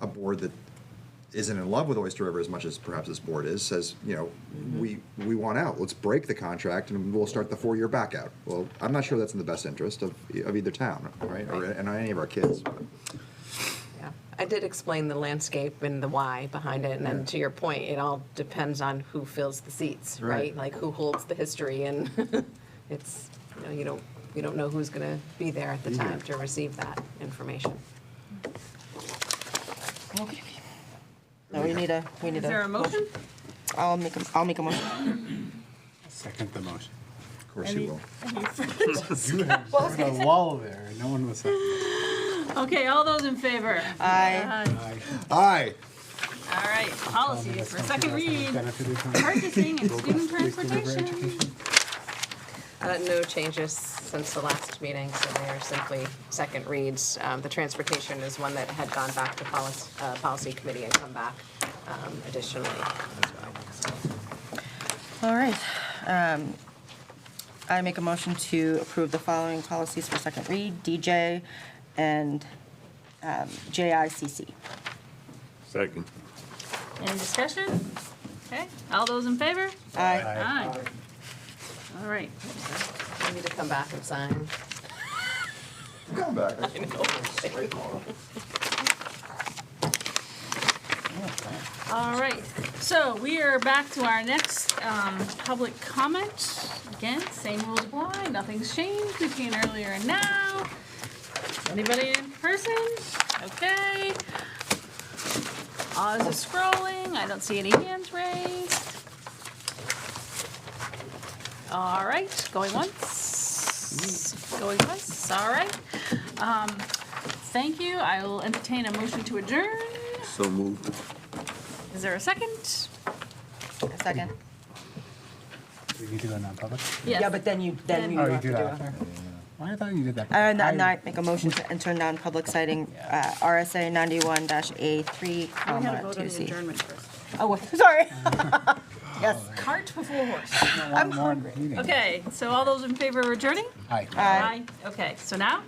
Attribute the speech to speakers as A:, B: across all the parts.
A: a board that isn't in love with Oyster River as much as perhaps this board is says, you know, we we want out. Let's break the contract and we'll start the four year back out. Well, I'm not sure that's in the best interest of, of either town, right, or and any of our kids. But.
B: Yeah, I did explain the landscape and the why behind it, and then to your point, it all depends on who fills the seats,
A: Right.
B: right? Like who holds the history, and it's, you know, you don't, you don't know who's gonna be there at the
A: Be here.
B: time to receive that information.
C: Okay. No, we need a, we need
D: Is there a motion?
C: I'll make a, I'll make a motion.
E: Second the motion.
A: Of course
D: Any-
A: you will.
D: any further dis-
E: You have started a wall there, no one was.
D: Okay, all those in favor?
C: Aye.
D: Aye.
A: Aye.
D: All right, policies for second read,
E: Benefited from.
D: purchasing and student
E: Oyster River
D: transportation.
E: education.
B: Uh, No changes since the last meeting, so they are simply second reads. Um, The transportation is one that had gone back to policy, uh, policy committee and come back um, additionally as well.
C: All right. Um, I make a motion to approve the following policies for second read, DJ and um, JICC.
F: Second.
D: Any discussion? Okay, all those in favor?
C: Aye.
D: Aye. All right,
B: We need to come back and sign.
A: Come back.
D: all right. So we are back to our next um, public comment. Again, same rules apply, nothing's changed between earlier and now. Anybody in person? Okay. Oz is scrolling, I don't see any hands raised. All right, going once, going twice, all right. Um, Thank you, I will entertain a motion to adjourn.
F: So moved.
D: Is there a second?
C: A second.
E: Do we need to go non-public?
D: Yes.
C: Yeah, but then you, then you
E: Oh, you
C: have to
E: do
C: do it.
E: that
C: on her.
E: after. Why I thought you did that.
C: Uh, n-
E: I-
C: n- I make a motion to enter non-public citing uh, RSA 91-A3,
D: We gotta
C: comma,
D: vote on the
C: 2C.
D: adjournment first.
C: Oh, wait, sorry. Yes.
D: Cart before horse.
E: I want more meeting.
D: Okay, so all those in favor of adjourning?
E: Aye.
C: Aye.
D: Okay, so now?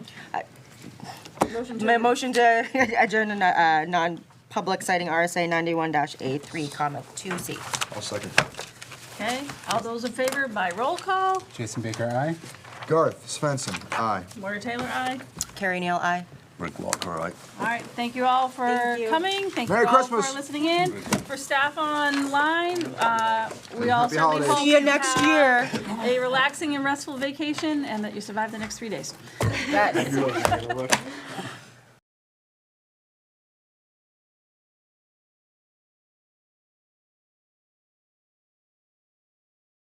D: Motion
C: My
D: to,
C: motion to adjourn in a, uh, non-public citing RSA 91-A3, comma, 2C.
A: I'll second.
D: okay, all those in favor by roll call?
E: Jason Baker, aye.
A: Garth Svensson. Aye.
D: Moore Taylor, aye.
C: Carrie Neal, aye.
F: Rick Walker, aye.
D: All right, thank you all for
C: Thank you.
D: coming. Thank you
A: Merry
D: all for
A: Christmas.
D: listening in. For staff online, uh, we all
A: Happy
D: certainly
A: holidays.
D: hope
C: See you next
D: have
C: year.
D: A relaxing and restful vacation and that you survive the next three days.
C: That-